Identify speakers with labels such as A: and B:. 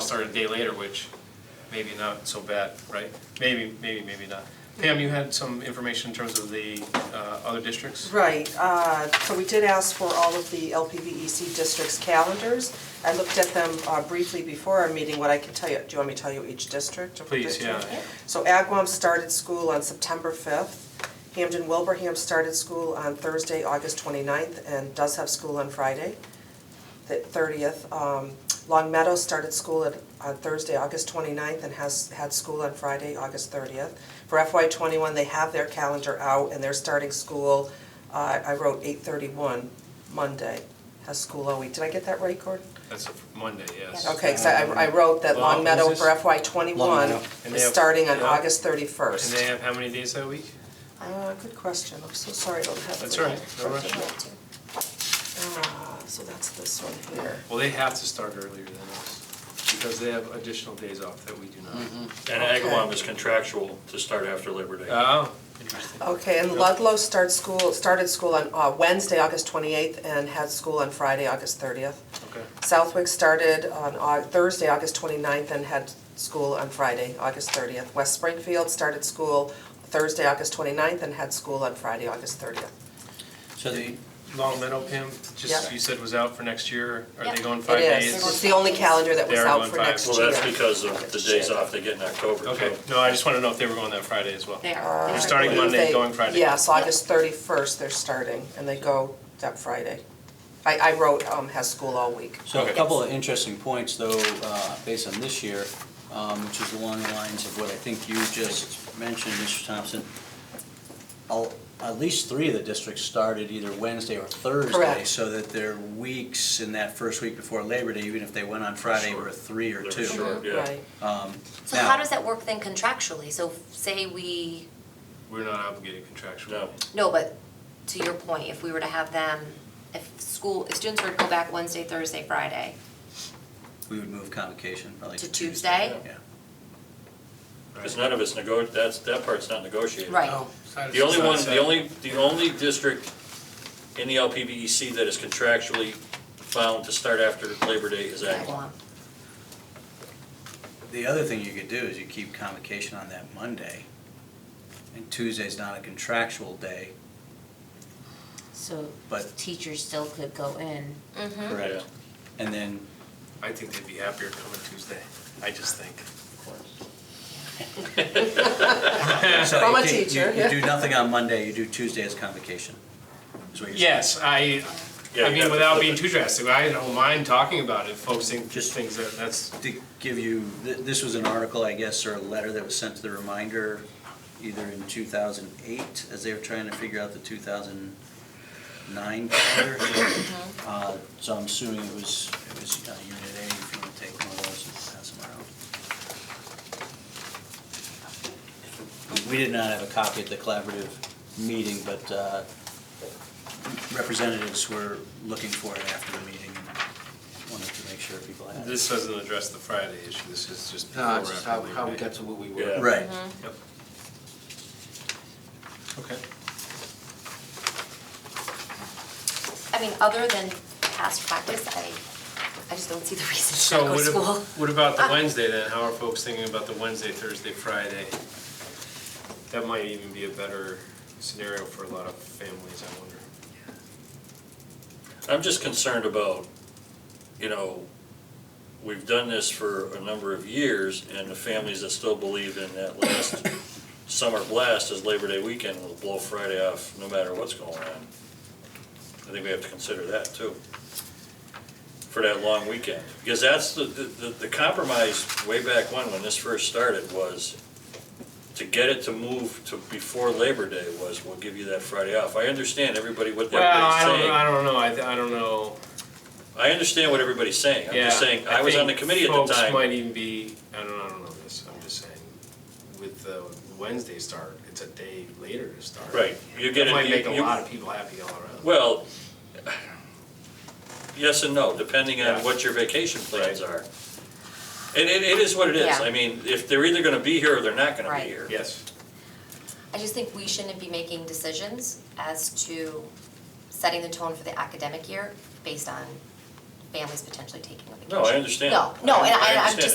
A: started a day later, which maybe not so bad, right? Maybe, maybe, maybe not. Pam, you had some information in terms of the uh, other districts?
B: Right, uh, so we did ask for all of the LPVEC E districts' calendars. I looked at them uh, briefly before our meeting, what I can tell you, do you want me to tell you each district? or
A: Please,
B: district?
A: yeah.
B: So Agawam started school on September fifth. Hamden Wilbraham started school on Thursday, August 29th, and does have school on Friday, the thirtieth. Um, Long Meadow started school at- on Thursday, August 29th, and has had school on Friday, August thirtieth. For FY twenty-one, they have their calendar out, and they're starting school, uh, I wrote eight thirty-one, Monday, has school all week. Did I get that right, Gordon?
A: That's a Monday, yes.
B: Okay, because I I wrote that
A: Well,
B: Long Meadow
A: is
B: for
A: this-
B: FY
C: Long
B: twenty-one
C: Meadow.
A: And they
B: is
A: have-
B: starting on
A: yeah.
B: August thirty-first.
A: And they have how many days that week?
B: Uh, good question, I'm so sorry I don't have.
A: That's
B: the-
A: all right, no rush.
B: Ah, so that's this one here.
A: Well, they have to start earlier than us, because they have additional days off that we do not.
B: Mm-hmm.
D: And Agawam is contractual to start after Labor Day.
A: Oh, interesting.
B: Okay, and Ludlow starts school, started school on uh, Wednesday, August twenty-eighth, and had school on Friday, August thirtieth.
A: Okay.
B: Southwick started on Au- Thursday, August 29th, and had school on Friday, August 30th. West Springfield started school Thursday, August 29th, and had school on Friday, August 30th.
C: So the,
A: Long Meadow, Pam, just,
B: Yeah.
A: you said was out for next year, are they
E: Yeah.
A: going
B: It
A: five days?
B: is, it's the only calendar that was
A: They are
B: out
A: going
B: for
A: five.
B: next year.
D: Well, that's because of the days off they get in October, too.
A: Okay, no, I just wanted to know if they were going that Friday as well.
E: They are.
A: They're starting Monday,
B: They-
A: going Friday.
B: Yes, August 31st, they're starting, and they go that Friday. I, I wrote, um, has school all week.
C: so a
A: Okay.
C: couple of interesting points though, uh, based on this year, um, which is along the lines of what I think you just mentioned, Mr. Thompson. Al- At least three of the districts started either Wednesday or Thursday.
B: Correct.
C: So that their weeks in that first week before Labor Day, even if they went on Friday,
D: Short.
C: were three or
D: They're
C: two.
D: short, yeah.
B: Right.
C: Um,
E: So
C: now-
E: how does that work then contractually? So f- say we,
A: We're not obligated contractually.
D: No.
E: no, but to your point, if we were to have them, if school, if students were to go back Wednesday, Thursday, Friday,
C: We would move convocation probably
E: To
C: to
E: Tuesday?
C: Tuesday. Yeah.
D: Because none of it's nego, that's, that part's not negotiated.
E: right?
D: The only one, the only, the only district in the LPBEC E that is contractually bound to start after Labor Day is Agawam.
E: Agawam.
C: The other thing you could do is you keep convocation on that Monday, and Tuesday's not a contractual day.
F: So
C: But-
F: teachers still could go in.
E: Mm-hmm.
D: Correct.
C: And then,
A: I think they'd be happier coming Tuesday, I just think.
C: so
B: From a
C: you can't- you-
B: teacher,
C: You
B: yeah.
C: do nothing on Monday, you do Tuesday as convocation, is what you're saying.
A: Yes, I, I
D: Yeah, you
A: mean,
D: have to
A: without
D: flip
A: being
D: it.
A: too drastic, I don't mind talking about it, focusing just
C: Just-
A: things that, that's,
C: To give you, th- this was an article, I guess, or a letter that was sent to the reminder either in 2008, as they were trying to figure out the 2009 calendar. Uh, So I'm assuming it was, it was uh, Unit A, if you want to take one of those and pass them around. We did not have a copy of the collaborative meeting, but uh, representatives were looking for it after the meeting and wanted to make sure people had it.
A: this doesn't address the Friday issue, this is just before
G: No, it's just how,
A: after
G: how we
A: Labor Day.
G: got to what we
D: Yeah.
G: were.
C: Right.
A: Yep. Okay.
E: I mean, other than past practice, I, I just don't see the reason
A: So
E: to go to
A: what,
E: school.
A: ab- what about
G: Ah.
A: the Wednesday then? How are folks thinking about the Wednesday, Thursday, Friday? That might even be a better scenario for a lot of families, I wonder.
D: I'm just concerned about, you know, we've done this for a number of years, and the families that still believe in that last summer blast as Labor Day weekend will blow Friday off, no matter what's going on. I think we have to consider that, too, for that long weekend. Because that's the, the, the- the compromise way back when, when this first started, was to get it to move to before Labor Day was, we'll give you that Friday off. I understand everybody, what
A: Well, I
D: everybody's saying.
A: don't, I don't know, I, th- I don't know.
D: I understand what everybody's saying, I'm just
A: Yeah,
D: saying, I was on the
A: think
D: committee at the
A: Folks
D: time.
A: might even be, I don't, I don't know this, I'm just saying, with the Wednesday start, it's a day later to start.
D: Right, you get
A: That
D: it.
A: might make a
D: you-
A: lot of people happy all around.
D: Well, yes and no, depending
A: Yeah.
D: on what your vacation plans are. And it, it is what it is,
E: Yeah.
D: I mean, if they're either gonna be here or they're not gonna be
E: Right.
D: here.
A: Yes,
E: I just think we shouldn't be making decisions as to setting the tone for the academic year based on families potentially taking a vacation.
D: No, I understand.
E: No, no, and I, I'm
D: understand.
E: just